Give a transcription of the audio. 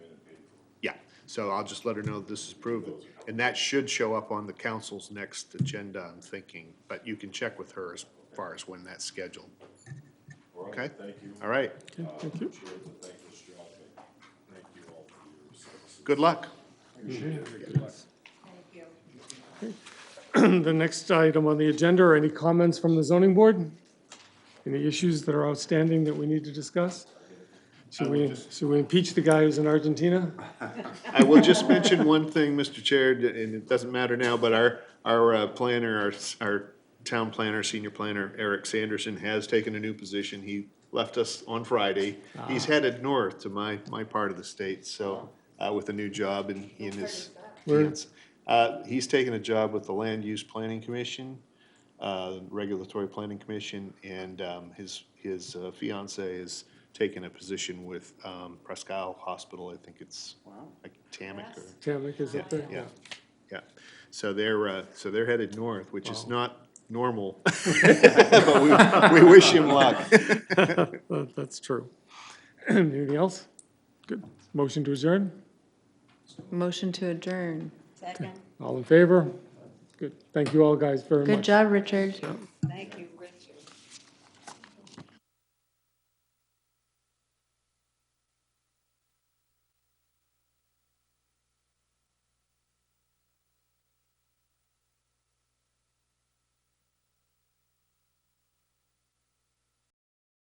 So I'll just let her know that this is proven. And that should show up on the council's next agenda, I'm thinking, but you can check with her as far as when that's scheduled. Okay? Thank you. All right. Okay, thank you. Good luck. The next item on the agenda are any comments from the zoning board? Any issues that are outstanding that we need to discuss? Should we, should we impeach the guy who's in Argentina? I will just mention one thing, Mr. Chair, and it doesn't matter now, but our, our uh, planner, our, s- our town planner, senior planner, Eric Sanderson, has taken a new position. He left us on Friday. He's headed north to my, my part of the state, so, uh, with a new job and he and his. hands. Uh, he's taken a job with the Land Use Planning Commission, uh, Regulatory Planning Commission, and, um, his, his uh, fiancee is taking a position with, um, Presque Isle Hospital, I think it's. Like Tamik or. Tamik is up there? Yeah, yeah. So they're, uh, so they're headed north, which is not normal. But we, we wish him luck. Uh, That's true. Anything else? Good. Motion to adjourn? Motion to adjourn. Second, All in favor? Good. Thank you all guys very much. Good job, Richard. thank you.